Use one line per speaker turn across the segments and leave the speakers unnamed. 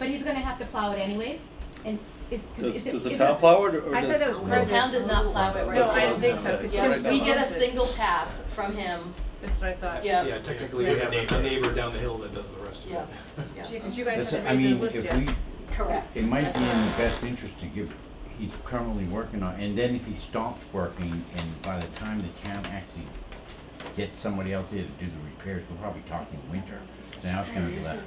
gonna have to plow it anyways, and is.
Does,
is it-
does the
is
town
this-
plow it, or
I thought it
does?
was
The
private.
town does not plow it right
No, I
now.
don't think so, because
Yeah,
Tim's.
We get a
owns it.
single path from him,
That's what I thought.
yeah,
Yeah, technically, we
Yeah.
have a- a neighbor down the hill that does the rest of
Yeah.
it.
yeah,
Because you guys
That's- I
haven't made
mean,
the list
if
yet.
we,
correct.
it might be in the best interest to give, he's currently working on, and then if he stopped working, and by the time the town actually gets somebody out there to do the repairs, we're probably talking winter, so now it's gonna be left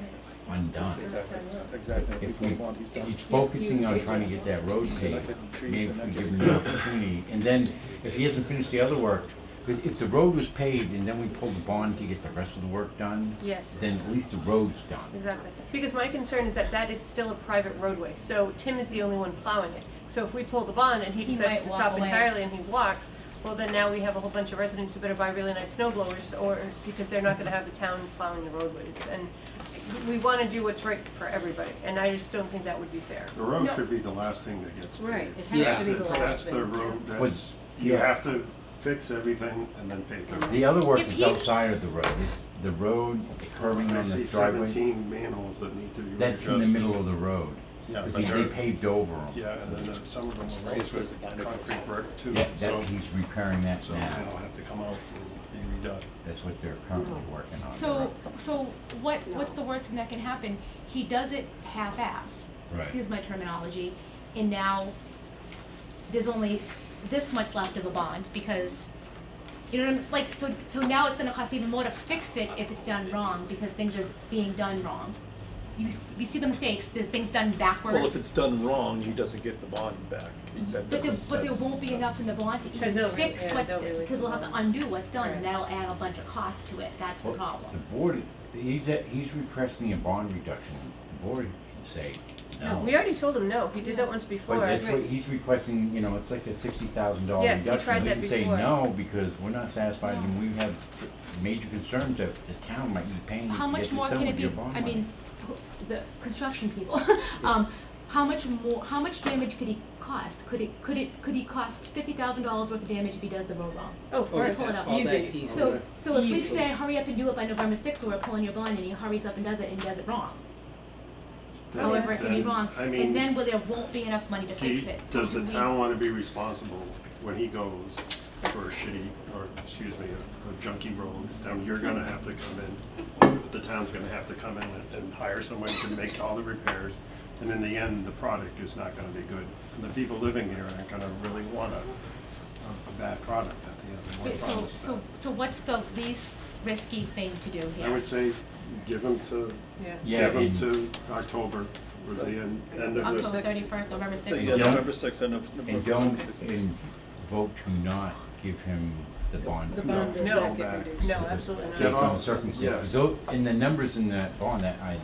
undone.
Exactly, exactly.
If
We
we,
move on, he's done.
he's focusing on trying to get that road paved, maybe if we give him the opportunity, and then, if he hasn't finished the other work, because if the road was paved and then we pulled the bond to get the rest of the work done,
Yes,
then at least the road's done.
exactly. Because my concern is that that is still a private roadway, so Tim is the only one plowing it. So if we pull the bond and he
He
decides
might
to
walk
stop
away.
entirely and he walks, well, then now we have a whole bunch of residents who better buy really nice snow blowers or, because they're not gonna have the town plowing the roadways. And we wanna do what's right for everybody, and I just don't think that would be fair.
The road
No.
should be the last thing that gets paved.
Right, it
Yeah.
has to be the
That's-
last
That's the
thing.
road,
Was-
that's, you
yeah.
have to fix everything and then pave the road.
The other work
If
is
you-
outside of the road, it's the road, the curving
I
on the
see
driveway,
seventeen manholes that need to be
that's in the
readjusted.
middle of the road.
Yeah,
You
but
see, they
they're-
paved over them.
Yeah, and then there- some of them are raised with concrete brick too, so,
That, he's repairing that
so
now,
they'll have to come out and be redone.
that's what they're currently working on.
So, so what, what's the worst thing that can happen? He does it half-ass,
Right.
excuse my terminology, and now there's only this much left of a bond because, you know what I'm, like, so, so now it's gonna cost even more to fix it if it's done wrong because things are being done wrong. You, s- you see the mistakes, there's things done backwards.
Well, if it's done wrong, he doesn't get the bond back. That
But there,
doesn't-
but there
that's-
won't be enough in the bond to
'Cause
even
they'll re-
fix
yeah,
what's,
they'll release
because we'll have to
the bond.
undo what's done, and that'll add a bunch of cost to it, that's the
Well,
problem.
The board, he's, at- he's requesting a bond reduction, the board can say no.
We already told him no, he did that once before.
But that's what he's requesting, you know, it's like a sixty thousand dollar
Yes, he
reduction.
tried that
We
before.
can say no, because we're not satisfied, and we have major concerns that the town might be paying to
How
get
much
this
more
done
can it
with your
be,
bond
I
money.
mean, who- the construction people, um, how much more, how much damage could he cost? Could it, could it, could he cost fifty thousand dollars worth of damage if he does the road wrong?
Oh, of
Oh,
course,
it's
Hold up.
all that
easy.
easy.
So, so if we
Easily.
say, hurry up and do it by November sixth, or we're pulling your bond, and he hurries up and does it and does it wrong,
Then-
however, it can be
then,
wrong,
I
and
mean,
then, well, there won't be enough money to
do you-
fix it. So
Does the
do we-
town wanna be responsible when he goes for a shitty, or, excuse me, a a junky road? Then you're gonna have to come in, the town's gonna have to come in and- and hire somebody to make all the repairs. And in the end, the product is not gonna be good. And the people living here aren't gonna really want a, a- a bad product at the end. of what
Wait, so,
products
so, so what's the least risky thing to do
that-
here?
I would say, give them to,
Yeah.
Yeah,
give them
and-
to October, or the end, end of this.
October thirty-first, November
So,
sixth?
yeah,
Yeah.
November sixth, end of.
And
November
don't,
6th.
and vote to not give him the bond.
The
No,
bond is
No.
not getting reduced.
No, absolutely not.
Based
Yeah.
on circumstances, so, and the numbers in that bond, that I,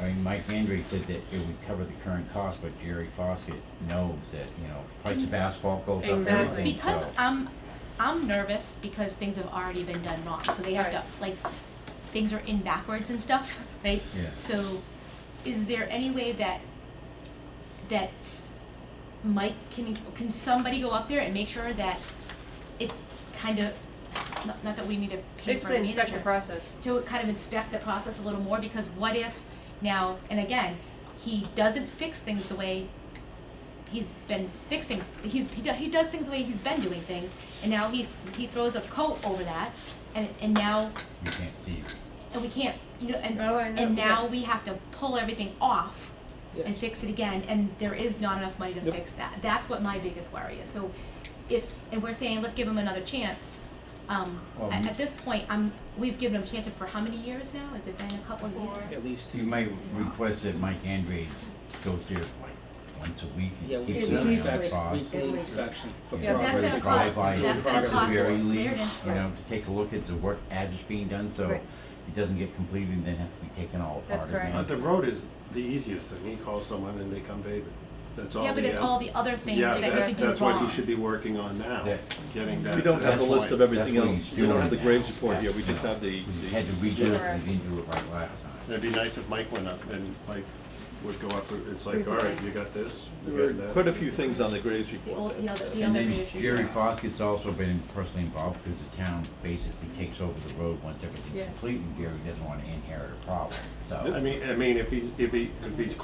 I mean, Mike Andre said that it would cover the current cost, but Jerry Foskett knows that, you know, price of asphalt goes up,
Exactly.
everything, so.
Because I'm, I'm nervous because things have already been done wrong, so they have to, like, things are in backwards and stuff, right?
Yeah.
So, is there any way that, that s- Mike, can, can somebody go up there and make sure that it's kind of, not, not that we need to pay for a
Basically inspect the
manager,
process.
to kind of inspect the process a little more because what if now and again he doesn't fix things the way he's been fixing he's he, do, he does things the way he's been doing things and now he he throws a coat over that and and now
You can't see,
and we can't you know and
Oh, I know,
and now
yes.
we have to pull everything off and fix it again and there is not enough money to
Yep.
fix that that's what my biggest worry is so if and we're saying let's give him another chance um,
Well,
at,
m-
at this point I'm we've given him chances for how many years now has it been a couple of years
At least
you
two.
might request that Mike Andre goes there once a week
Yeah,
and keeps
weekly
an eye on that
inspection,
cost.
weekly
At least.
inspection. for
Yeah,
that's
progress,
gonna cost-
drive by
doing
that's gonna
progress.
cost-
very
Fair
least,
enough.
you know, to take a look at the work as it's being done, so
Right.
it doesn't get completed and then has to be taken all
That's
apart
correct.
again.
But the road is the easiest thing. He calls someone and they come pave it. That's all.
yeah but
the
it's
end.
all the other things
Yeah,
that
that's-
you could do
That's
wrong
what he should be working on now,
Yeah.
getting that.
We don't have
That's
the list
why-
of everything
that's what
else,
he's
we don't have the
doing
Graves
now.
report here, we just
Yeah.
have the,
We
the-
had to redo it, and we didn't do it right last time.
It'd be nice if Mike went up and like would go up, it's like,
We've-
all right, you got this, you
there
got
were
that.
quite a few things on the Graves
the
report.
old the other the
And
other
then
reissue.
Jerry Foskett's also been personally involved because the town basically takes over the road once everything's
Yes.
complete and Gary doesn't want to inherit a problem, so.
I mean, I mean, if he's, if he, if he's